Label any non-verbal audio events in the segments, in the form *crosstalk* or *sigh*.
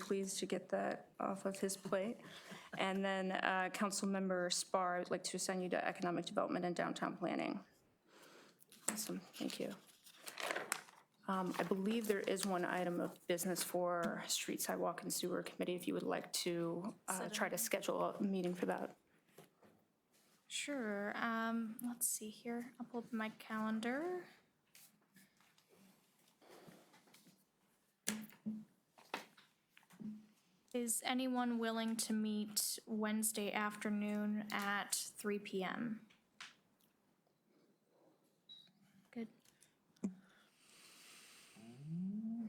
pleased to get that off of his plate. And then uh, Councilmember Spar, I'd like to assign you to Economic Development and Downtown Planning. Awesome, thank you. Um, I believe there is one item of business for Street Sidewalk and Sewer Committee, if you would like to uh, try to schedule a meeting for that. Sure. Um, let's see here. I'll pull up my calendar. Is anyone willing to meet Wednesday afternoon at three PM? Good.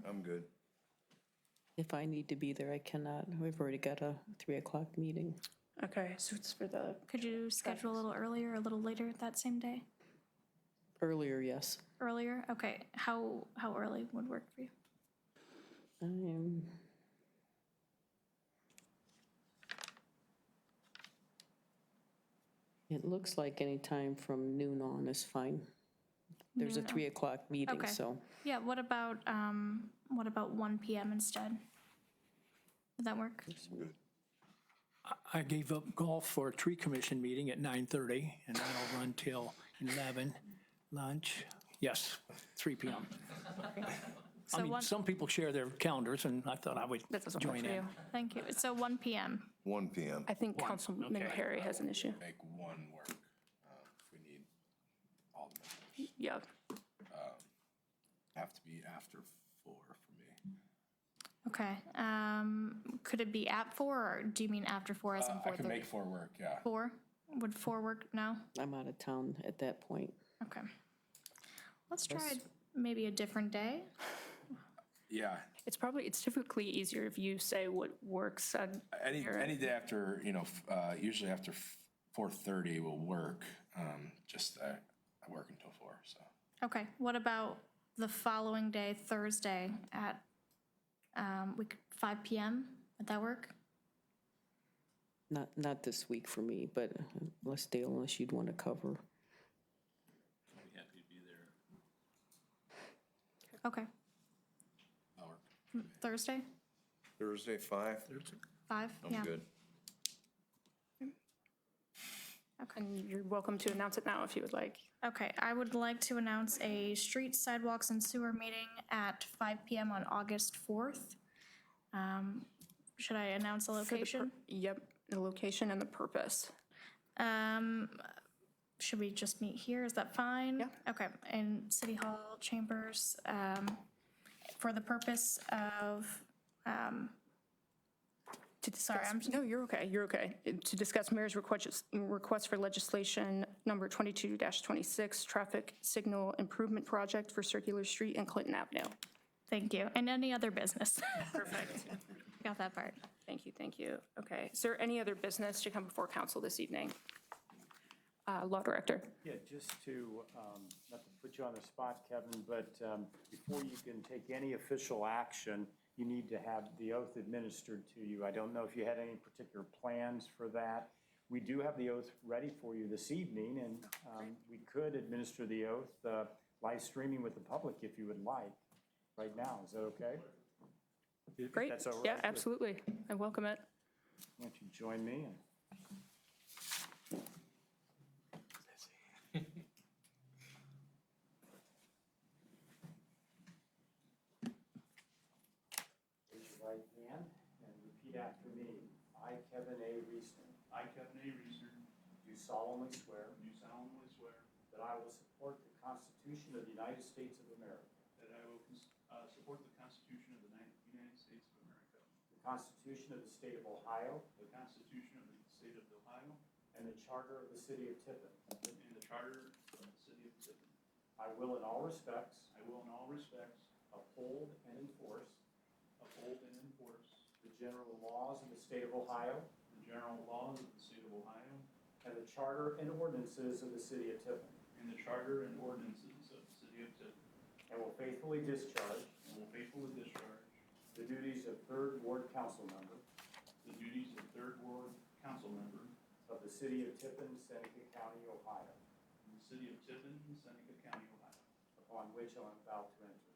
I'm good. If I need to be there, I cannot. We've already got a 3 o'clock meeting. Okay, so it's for the, Could you schedule a little earlier, a little later that same day? Earlier, yes. Earlier? Okay. How, how early would work for you? I am, it looks like any time from noon on is fine. There's a 3 o'clock meeting, Okay. so Yeah, what about, um, what about one PM instead? Would that work? I gave up golf for a tree commission meeting at 9:30, and that'll run till 11, lunch, yes, 3 PM. I So mean, one, some people share their calendars, and I thought I would that doesn't work join for in. you. thank you, so one PM, One PM. I think Councilman Perry has an issue. make one work, uh, if we need all the members. Yeah, Have to be after four for me. okay. Um, could it be at four, or do you mean after four as in Uh, I can 4:30? make four work, yeah. Four, would four work now? I'm out of town at that point. Okay. Let's try maybe a different day. Yeah, it's probably, it's typically easier if you say what works on any, any day after, you know, f- uh, usually after four thirty will work. Um, just, I, I work until four, so. Okay, what about the following day, Thursday, at, um, we could, five PM, would that work? Not, not this week for me, but unless Dale, unless you'd want to cover. Okay, Mm, That'll work. Thursday, Thursday, five? five, yeah. I'm good. And you're welcome to announce it now if you would like. Okay, I would like to announce a street sidewalks and sewer meeting at 5 PM on August 4th. Um, Should I announce a location? Yep, the location and the purpose. Um, Should we just meet here, is that fine? Yeah. Okay, in City Hall chambers, um, for the purpose of, To Sorry, discuss- I'm just- No, you're okay, you're okay. To discuss mayor's request, request for legislation number 22-26, traffic signal improvement project for Circular Street and Clinton Avenue. thank you, and any other business. Perfect. *laughs* Got that part. Thank you, thank you. Okay, is there any other business to come before council this evening? Uh, Law Director, Yeah, just to, um, not to put you on the spot, Kevin, but um, before you can take any official action, you need to have the oath administered to you. I don't know if you had any particular plans for that. We do have the oath ready for you this evening, and um, we could administer the oath uh, live streaming with the public if you would like, right now. Is that okay? If great. that's all right Yeah, with- absolutely, I welcome it. Why don't you join me? and- Raise your right hand and repeat after me. I, Kevin A. Reesner, I, Kevin A. Reeser, do solemnly swear do solemnly swear that I will support the Constitution of the United States of America, that I will cons- uh, support the Constitution of the Ni- United States of America, the Constitution of the State of Ohio, the Constitution of the State of Ohio, and the Charter of the City of Tiffin. and the Charter of the City of Tiffin. I will in all respects I will in all respects uphold and enforce uphold and enforce the general laws of the State of Ohio the general laws of the State of Ohio and the charter and ordinances of the City of Tiffin, and the Charter and ordinances of the City of Tiffin, and will faithfully discharge and will faithfully discharge the duties of Third Ward Council Member the duties of Third Ward Council Member of the City of Tiffin, Seneca County, Ohio, in the City of Tiffin, Seneca County, Ohio, upon which I am about to enter.